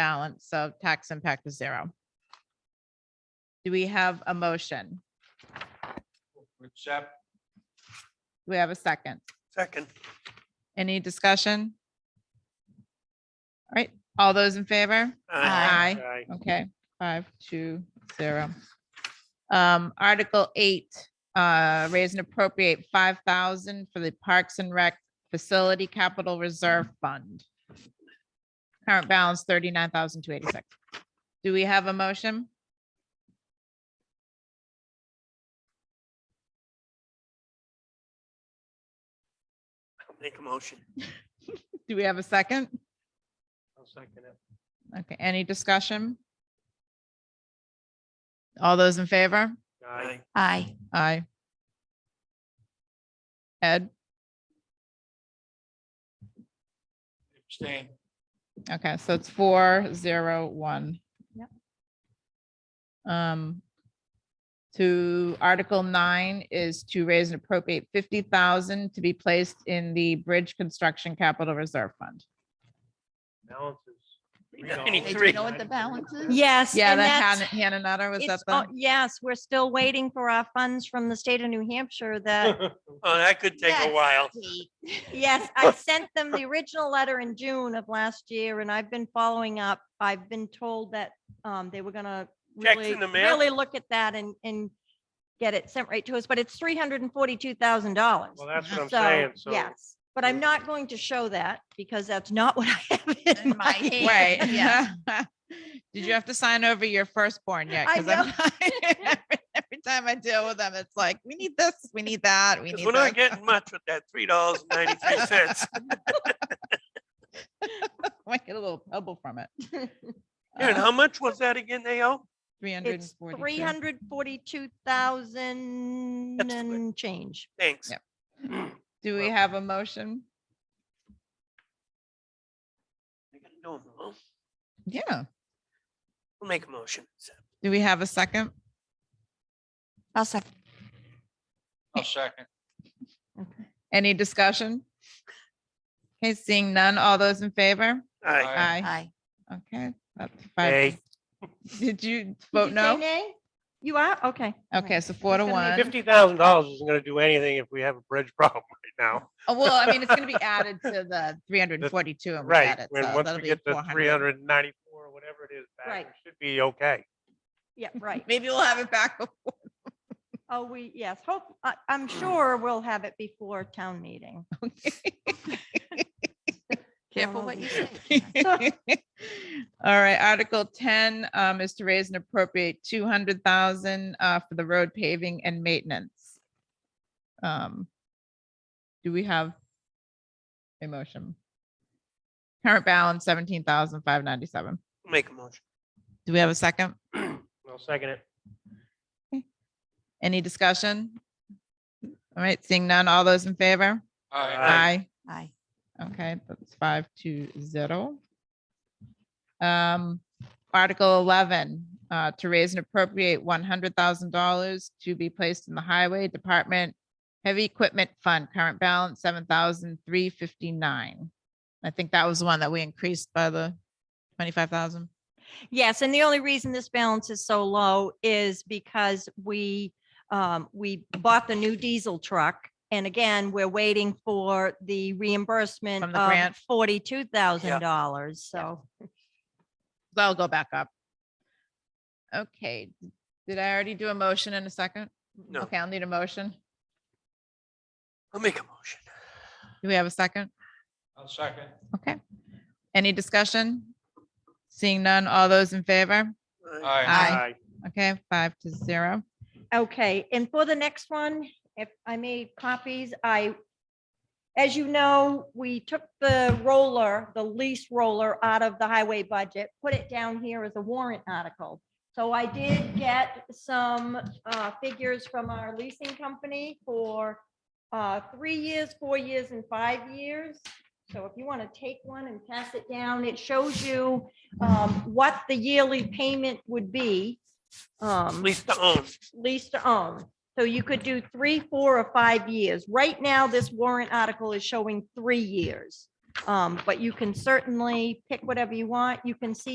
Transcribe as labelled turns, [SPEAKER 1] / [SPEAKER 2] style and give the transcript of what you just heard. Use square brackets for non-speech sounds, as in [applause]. [SPEAKER 1] balance of tax impact is zero. Do we have a motion?
[SPEAKER 2] Accept.
[SPEAKER 1] Do we have a second?
[SPEAKER 2] Second.
[SPEAKER 1] Any discussion? All right, all those in favor? Aye. Okay, five, two, zero. Um, Article eight, uh, raise and appropriate five thousand for the Parks and Rec Facility Capital Reserve Fund. Current balance thirty-nine thousand two eighty-six. Do we have a motion?
[SPEAKER 2] Make a motion.
[SPEAKER 1] Do we have a second?
[SPEAKER 2] I'll second it.
[SPEAKER 1] Okay, any discussion? All those in favor?
[SPEAKER 2] Aye.
[SPEAKER 3] Aye.
[SPEAKER 1] Aye. Ed,
[SPEAKER 2] Abstain.
[SPEAKER 1] okay, so it's four, zero, one. Um, to Article nine is to raise and appropriate fifty thousand to be placed in the Bridge Construction Capital Reserve Fund.
[SPEAKER 2] Balances.
[SPEAKER 3] Hey, Do
[SPEAKER 2] Three.
[SPEAKER 3] you know what the balance is?
[SPEAKER 4] Yes.
[SPEAKER 1] Yeah,
[SPEAKER 4] and
[SPEAKER 1] that
[SPEAKER 4] that's-
[SPEAKER 1] Hannah Nutter, was that
[SPEAKER 4] it's
[SPEAKER 1] the?
[SPEAKER 4] on- Yes, we're still waiting for our funds from the state of New Hampshire that,
[SPEAKER 5] Oh, that could [laughs] take a
[SPEAKER 3] Yes,
[SPEAKER 5] while.
[SPEAKER 3] Kate.
[SPEAKER 4] yes, I sent them the original letter in June of last year and I've been following up. I've been told that um, they were gonna
[SPEAKER 5] Checks
[SPEAKER 4] really,
[SPEAKER 5] in the mail?
[SPEAKER 4] really look at that and, and get it sent right to us, but it's three hundred and forty-two thousand dollars.
[SPEAKER 5] Well, that's what I'm
[SPEAKER 4] So,
[SPEAKER 5] saying, so.
[SPEAKER 4] yes, but I'm not going to show that because that's not what I have in my hand.
[SPEAKER 1] Right.
[SPEAKER 4] [laughs]
[SPEAKER 3] Yeah.
[SPEAKER 1] [laughs] Did you have to sign over your firstborn yet?
[SPEAKER 4] I
[SPEAKER 1] 'Cause I'm not- [laughs] Every time I deal with them, it's like, we need this, we need that, we
[SPEAKER 5] 'Cause
[SPEAKER 1] need
[SPEAKER 5] we're
[SPEAKER 1] [laughs]
[SPEAKER 5] not
[SPEAKER 1] this.
[SPEAKER 5] getting much with that three dollars and
[SPEAKER 1] [laughs]
[SPEAKER 5] ninety-three cents.
[SPEAKER 1] Might get a little pebble from it. Uh,
[SPEAKER 5] Karen, how much was that again, they owe?
[SPEAKER 1] Three hundred and
[SPEAKER 4] It's three
[SPEAKER 1] forty.
[SPEAKER 4] hundred forty-two thousand
[SPEAKER 5] That's good.
[SPEAKER 4] and change.
[SPEAKER 5] Thanks.
[SPEAKER 1] Yep. Do we have a motion?
[SPEAKER 5] I gotta do 'em all.
[SPEAKER 1] Yeah.
[SPEAKER 5] We'll make a motion.
[SPEAKER 1] Do we have a second?
[SPEAKER 3] I'll second.
[SPEAKER 2] I'll second.
[SPEAKER 1] Any discussion? Okay, seeing none, all those in favor?
[SPEAKER 5] Aye.
[SPEAKER 2] Aye.
[SPEAKER 1] Aye.
[SPEAKER 3] Aye.
[SPEAKER 1] Okay. that's
[SPEAKER 5] Nay.
[SPEAKER 1] five. Did you
[SPEAKER 4] Did
[SPEAKER 1] vote
[SPEAKER 4] you say
[SPEAKER 1] no?
[SPEAKER 4] nay? You are? Okay.
[SPEAKER 1] Okay, so four to
[SPEAKER 4] It's gonna be
[SPEAKER 1] one.
[SPEAKER 5] Fifty thousand dollars isn't gonna do anything if we have a bridge [laughs] problem right now.
[SPEAKER 1] Oh, well, I mean, it's gonna be
[SPEAKER 5] [laughs]
[SPEAKER 1] added to the three hundred and forty-two. and we got
[SPEAKER 5] Right,
[SPEAKER 1] it,
[SPEAKER 5] when,
[SPEAKER 1] so
[SPEAKER 5] once
[SPEAKER 1] that'll
[SPEAKER 5] we
[SPEAKER 1] be
[SPEAKER 5] get to
[SPEAKER 1] 400.
[SPEAKER 5] three hundred and ninety-four, whatever it is, back,
[SPEAKER 4] Right.
[SPEAKER 5] we should be okay.
[SPEAKER 4] Yeah, right.
[SPEAKER 1] Maybe we'll have it back. [laughs] before-
[SPEAKER 4] Oh, we, yes, hope, I, I'm
[SPEAKER 1] Hmm.
[SPEAKER 4] sure we'll have it before
[SPEAKER 3] [laughs]
[SPEAKER 4] town meeting.
[SPEAKER 3] Careful
[SPEAKER 4] Don't
[SPEAKER 3] what you say.
[SPEAKER 4] overdo
[SPEAKER 1] [laughs] All right, Article ten um is to raise and appropriate two hundred thousand uh for the road paving and maintenance. Um, do we have a motion? Current balance seventeen thousand five ninety-seven.
[SPEAKER 5] We'll Make a motion.
[SPEAKER 1] Do we have a second?
[SPEAKER 5] I'll second it.
[SPEAKER 1] Any discussion? All right, seeing none, all those in favor?
[SPEAKER 2] Aye.
[SPEAKER 5] Aye.
[SPEAKER 1] Aye.
[SPEAKER 3] Aye.
[SPEAKER 1] Okay, that's five to zero. Um, Article eleven, uh, to raise and appropriate one hundred thousand dollars to be placed in the Highway Department Heavy Equipment Fund, current balance seven thousand three fifty-nine. I think that was the one that we increased by the twenty-five thousand.
[SPEAKER 4] Yes, and the only reason this balance is so low is because we, um, we bought the new diesel truck. And again, we're waiting for the reimbursement
[SPEAKER 1] From the grant.
[SPEAKER 4] of forty-two thousand dollars, so.
[SPEAKER 1] That'll go back up. Okay, did I already do a motion in a second?
[SPEAKER 5] No,
[SPEAKER 1] Okay, I'll need a motion.
[SPEAKER 5] I'll make a motion.
[SPEAKER 1] Do we have a second?
[SPEAKER 2] I'll second.
[SPEAKER 1] Okay. Any discussion? Seeing none, all those in favor? Aye. Okay, five to zero.
[SPEAKER 4] Okay, and for the next one, if I made copies, I, as you know, we took the roller, the lease roller out of the highway budget, put it down here as a warrant article. So I did get some uh, figures from our leasing company for uh, three years, four years, and five years. So if you want to take one and pass it down, it shows you um, what the yearly payment would be.
[SPEAKER 5] At
[SPEAKER 4] Um,
[SPEAKER 5] least to own.
[SPEAKER 4] lease to own. So you could do three, four, or five years. Right now, this warrant article is showing three years. Um, But you can certainly pick whatever you want. You can see